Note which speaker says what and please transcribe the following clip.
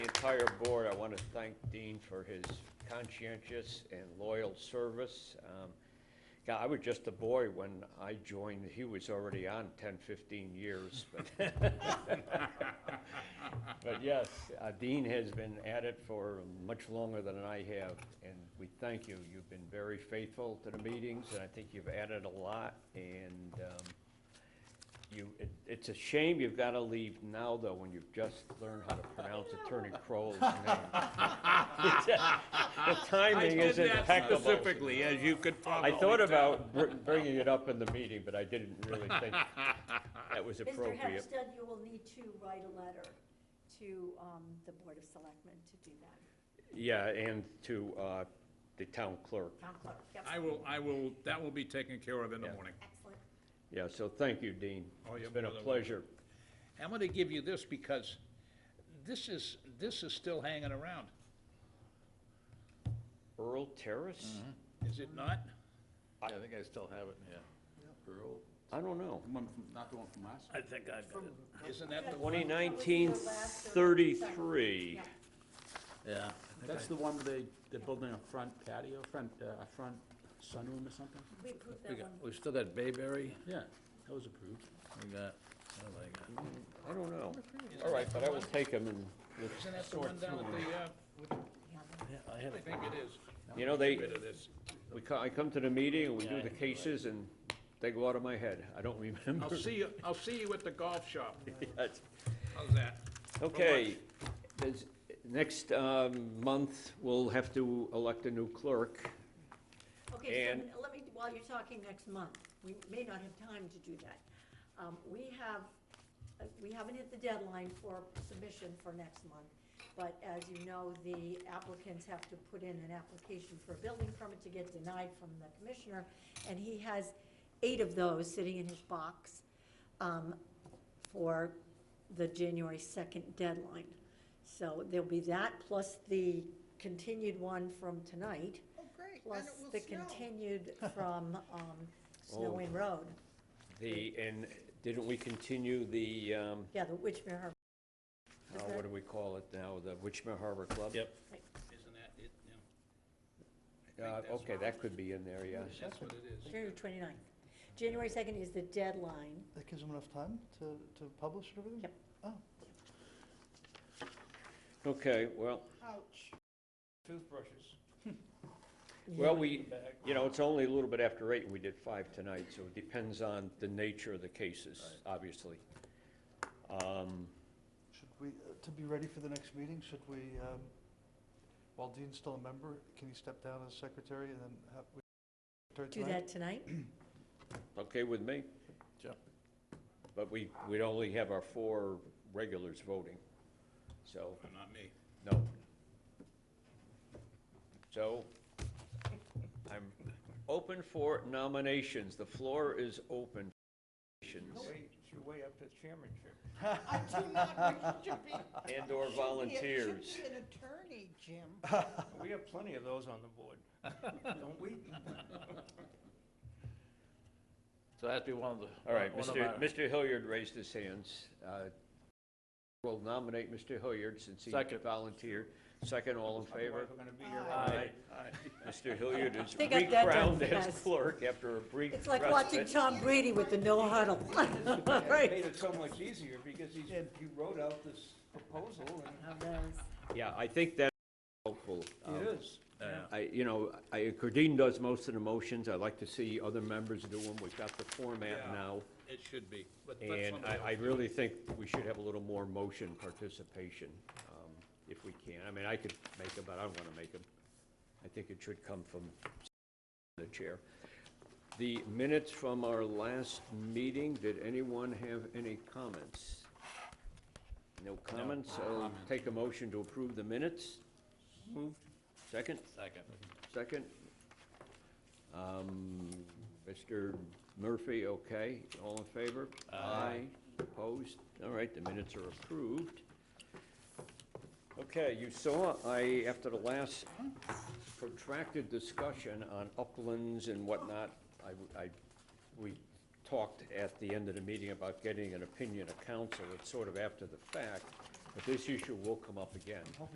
Speaker 1: entire board, I want to thank Dean for his conscientious and loyal service. Um, God, I was just a boy when I joined. He was already on 10, 15 years. But, but yes, uh, Dean has been at it for much longer than I have, and we thank you. You've been very faithful to the meetings, and I think you've added a lot. And um, you, it, it's a shame you've got to leave now, though, when you've just learned how to pronounce Attorney Crowell's name. The timing is impeccable.
Speaker 2: Specifically, as you could
Speaker 1: I
Speaker 2: probably.
Speaker 1: thought about br- bringing it up in the meeting, but I didn't really think that was
Speaker 3: Mr.
Speaker 1: appropriate.
Speaker 3: Hempstead, you will need to write a letter to um, the Board of Selectmen to do that.
Speaker 1: Yeah, and to uh, the town clerk.
Speaker 3: Town clerk, yep,
Speaker 2: I will, I will, that will be taken care of in the
Speaker 1: Yeah.
Speaker 2: morning.
Speaker 3: excellent.
Speaker 1: Yeah, so thank you, Dean.
Speaker 2: Oh,
Speaker 1: It's
Speaker 2: you're
Speaker 1: been a
Speaker 2: more than
Speaker 1: pleasure.
Speaker 2: I'm gonna give you this because this is, this is still hanging around,
Speaker 1: Earl Terrace?
Speaker 2: is it not?
Speaker 4: Yeah, I think I still have it, yeah. Earl,
Speaker 1: I don't know.
Speaker 4: one from, not the one from last?
Speaker 2: I think I've got it. Isn't that the one?
Speaker 1: 2019-33.
Speaker 4: Yeah. That's the one where they, they're building a front patio, front, uh, a front sunroom or something?
Speaker 3: We approved that one.
Speaker 5: We've still got Bayberry,
Speaker 4: Yeah, that was approved.
Speaker 5: we got, what have I got?
Speaker 1: I don't know. All right, but I will take him and, let's-
Speaker 2: Isn't that the one down at the, uh,
Speaker 5: Yeah, I had
Speaker 2: I
Speaker 5: it.
Speaker 2: think it is.
Speaker 1: you know, they,
Speaker 2: Bit of this.
Speaker 1: we, co- I come to the meeting and we do the cases and they go out of my head. I don't remember.
Speaker 2: I'll see you, I'll see you at the golf shop,
Speaker 1: That's-
Speaker 2: how's that?
Speaker 1: Okay, There's- next um, month, we'll have to elect a new clerk.
Speaker 3: Okay,
Speaker 1: And-
Speaker 3: so let me, while you're talking next month, we may not have time to do that. Um, We have, uh, we haven't hit the deadline for submission for next month, but as you know, the applicants have to put in an application for a building permit to get denied from the commissioner, and he has eight of those sitting in his box um, for the January 2nd deadline. So there'll be that, plus the continued one from tonight.
Speaker 6: Oh, great, and
Speaker 3: Plus
Speaker 6: it will
Speaker 3: the
Speaker 6: snow.
Speaker 3: continued from um, Snow
Speaker 1: Oh.
Speaker 3: Inn Road,
Speaker 1: The, and didn't we continue the, um,
Speaker 3: yeah, the Witchmere Harbor.
Speaker 1: uh, what do we call it now, the Wichita Harbor Club?
Speaker 5: Yep.
Speaker 2: Isn't that it, yeah,
Speaker 1: Uh, Okay, that could be in there, yeah.
Speaker 2: that's what it is.
Speaker 3: January 29th. January 2nd is the deadline.
Speaker 7: That gives them enough time to, to publish and everything?
Speaker 3: Yep.
Speaker 7: Oh.
Speaker 1: Okay, well,
Speaker 6: Ouch.
Speaker 4: Toothbrushes.
Speaker 1: well, we, you know, it's only a little bit after eight, and we did five tonight, so it depends on the nature of the cases, obviously. Um,
Speaker 7: Should we, uh, to be ready for the next meeting, should we, um, while Dean's still a member, can he step down as secretary and then have, we,
Speaker 3: Do
Speaker 7: secretary tonight?
Speaker 3: that tonight?
Speaker 1: Okay with me?
Speaker 4: Sure.
Speaker 1: But we, we'd only have our four regulars voting, so,
Speaker 2: Not me.
Speaker 1: no. So, I'm open for nominations, the floor is open. for nominations
Speaker 2: It's your way up to chairmanship.
Speaker 6: I do not wish to be.
Speaker 1: And/or
Speaker 6: It
Speaker 1: volunteers.
Speaker 6: should be an attorney, Jim.
Speaker 2: We have plenty of those on the board, don't we?
Speaker 5: So that'd be one of the.
Speaker 1: All right,
Speaker 5: one of
Speaker 1: Mr.
Speaker 5: our-
Speaker 1: Mr. Hilliard raised his hands. Uh, We'll nominate Mr. Hilliard since he
Speaker 5: Second.
Speaker 1: volunteered. Second, all in favor?
Speaker 5: Aye.
Speaker 1: Mr. Hilliard is
Speaker 3: They got that done
Speaker 1: recrowned as
Speaker 3: fast.
Speaker 1: clerk after a brief respite.
Speaker 3: It's like watching Tom Brady with the no huddle. Right.
Speaker 8: made it so much easier because he's, he wrote out this proposal and
Speaker 1: Yeah, I think that's helpful. Um,
Speaker 8: it is.
Speaker 5: Yeah.
Speaker 1: I, you know, I, Cardine does most of the motions. I like to see other members do them. We've got the format
Speaker 2: Yeah.
Speaker 1: now.
Speaker 2: It should be, but let
Speaker 1: And
Speaker 2: somebody
Speaker 1: I, I
Speaker 2: else do it.
Speaker 1: really think we should have a little more motion participation, um, if we can. I mean, I could make them, but I don't want to make them. I think it should come from the chair. The minutes from our last meeting, did anyone have any comments? No comments, so take a motion to approve the minutes?
Speaker 8: Moved.
Speaker 1: Second?
Speaker 5: Second.
Speaker 1: Second. Um, Mr. Murphy, okay, all in favor? Aye. Opposed? All right, the minutes are approved. Okay, you saw, I, after the last protracted discussion on uplands and whatnot, I, I, we talked at the end of the meeting about getting an opinion of council, it's sort of after the fact, but this issue will come up again.